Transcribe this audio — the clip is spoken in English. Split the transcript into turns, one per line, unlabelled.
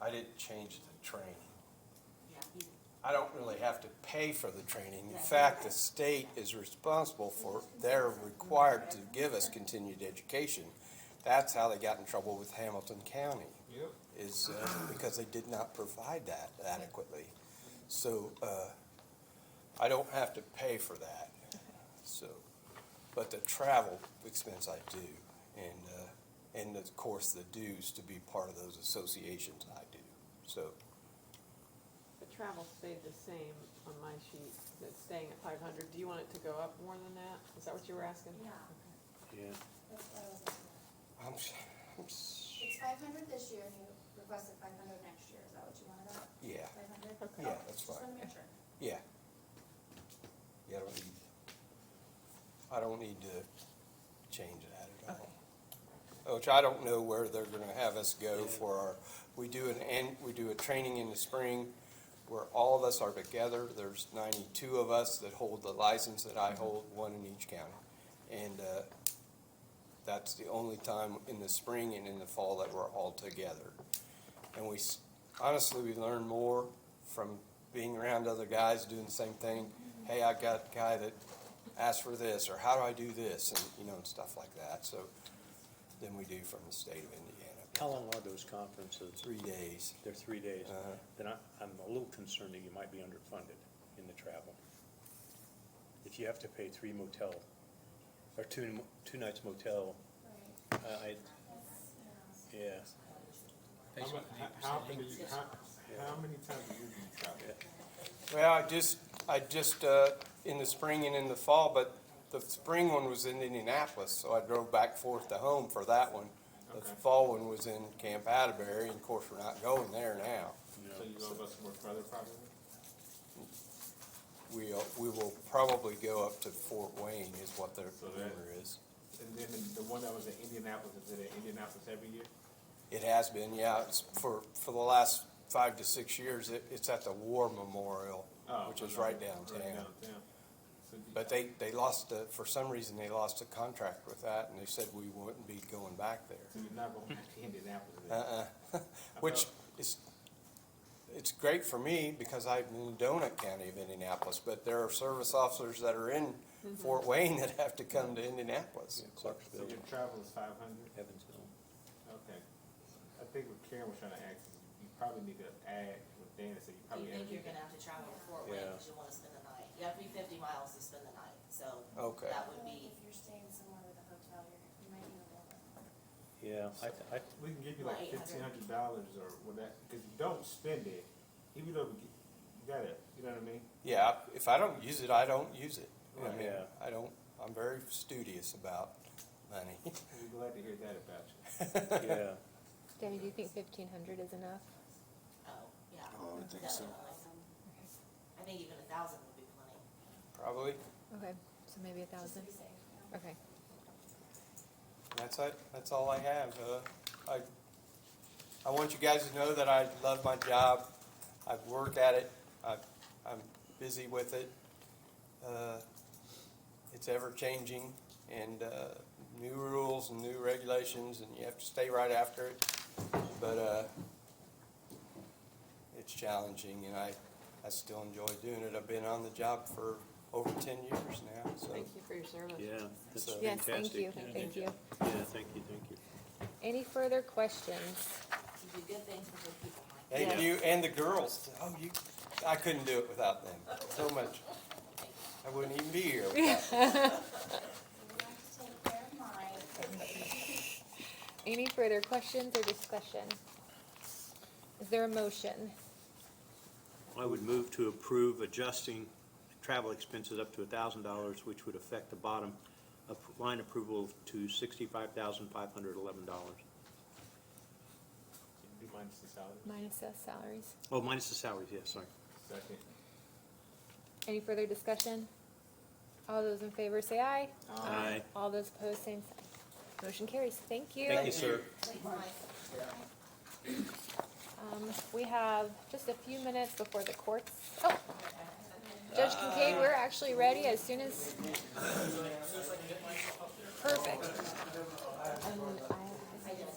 I didn't change the training.
Yeah, you-
I don't really have to pay for the training. In
Right.
fact, the state is responsible for, they're required to give us continued education. That's how they got in trouble with Hamilton County,
Yep.
is uh, because they did not provide that adequately. So, uh, I don't have to pay for that, so, but the travel expense I do, and, uh, and of course, the dues to be part of those associations I do, so.
The travel stayed the same on my sheet, it's staying at five hundred, do you want it to go up more than that? Is that what you were asking?
yeah,
That's what I was looking
I'm, s- I'm s-
at. It's five hundred this year, and you requested five hundred next year, is that what you wanted up?
yeah,
Five hundred?
Okay.
Yeah, that's
Just
fine.
wanna make sure.
yeah. Yeah, I don't need, I don't need to change that at all. Which I don't know where they're gonna have us go for our, we do an, and, we do a training in the spring where all of us are together. There's ninety-two of us that hold the license that I hold, one in each county. And, uh, that's the only time in the spring and in the fall that we're all together. And we, s- honestly, we learn more from being around other guys doing the same thing. Hey, I got a guy that asked for this, or how do I do this, and, you know, and stuff like that, so, than we do from the state of Indiana.
How long are those conferences?
Three days.
They're three days.
Uh-huh.
Then I, I'm a little concerned that you might be underfunded in the travel. If you have to pay three motel, or two, mo- two nights motel,
Right.
I, I-
That's, yeah.
yeah,
How mu- How, how many, how, how many times a year do you travel?
Well, I just, I just, uh, in the spring and in the fall, but the spring one was in Indianapolis, so I drove back forth to home for that one. The
Okay.
fall one was in Camp Atterbury, and of course, we're not going there now.
no.
So you go about some more further probably?
We, uh, we will probably go up to Fort Wayne is what their
So that-
rumor is.
And then the- the one that was in Indianapolis, is it in Indianapolis every year?
It has been, yeah, it's for, for the last five to six years, it, it's at the War Memorial,
Oh,
which is
okay.
right downtown.
downtown. So do-
But they, they lost, the- for some reason, they lost a contract with that, and they said we wouldn't be going back
So
there.
you're not going back to Indianapolis then?
Uh-uh, which is, it's great for me, because I'm in Donut County of Indianapolis, but there are service officers that are in Fort Wayne that have to come to Indianapolis.
Yeah,
So
Clarksville,
your travel is five hundred?
Evansville.
Okay. I think what Karen was trying to ask is you probably need to add what Dana said, you
you
probably add.
think you're gonna have to travel to Fort Wayne,
Yeah.
cause you wanna spend the night, you have to be fifty miles to spend the night, so
Okay.
that
I
would
feel like
be,
If you're staying somewhere with a hotel, you're, you might need a little bit more.
Yeah, I, I,
We can give you like
Like
fifteen
800.
hundred dollars or whatever, cause you don't spend it, even though we get- you got it, you know what I mean?
Yeah, if I don't use it, I don't use it. I
Right.
mean,
Yeah.
I don't, I'm very studious about money.
We're glad to hear that about you.
yeah,
Danny, do you think fifteen hundred is enough?
oh, yeah.
Oh, I think so.
definitely. I think even a thousand would be plenty.
Probably,
Okay, so maybe a
Just to
thousand?
be safe, you know?
Okay.
that's it, that's all I have, uh, I, I want you guys to know that I love my job, I work at it, I, I'm busy with it. Uh, It's ever-changing, and, uh, new rules and new regulations, and you have to stay right after it, but, uh, it's challenging, and I, I still enjoy doing it, I've been on the job for over ten years now, so.
Thank you for your service.
yeah, that's
So-
fantastic.
Yes, thank you,
Yeah,
thank you.
Yeah, thank you, thank you.
Any further questions?
You do good things for good people, Mike.
Thank
Yeah.
you, and the girls. Oh, you, I couldn't do it without them so much. I wouldn't even be here without them.
So we have to take care of mine.
Any further questions or discussion? Is there a motion?
I would move to approve adjusting travel expenses up to thousand dollars, which would affect the bottom of line approval to sixty-five thousand five hundred eleven dollars.
Do you mind the salary?
Minus us uh, salaries.
Oh, minus the salaries, yes, sorry.
Second.
Any further discussion? All those in favor say aye.
Aye.
All those opposed, same sign. Motion carries. Thank you.
Thank you, sir.
Thanks, Mike.
Um, we have just a few minutes before the courts. Oh, Judge Kincaid, we're actually ready as soon as. Perfect. Um, I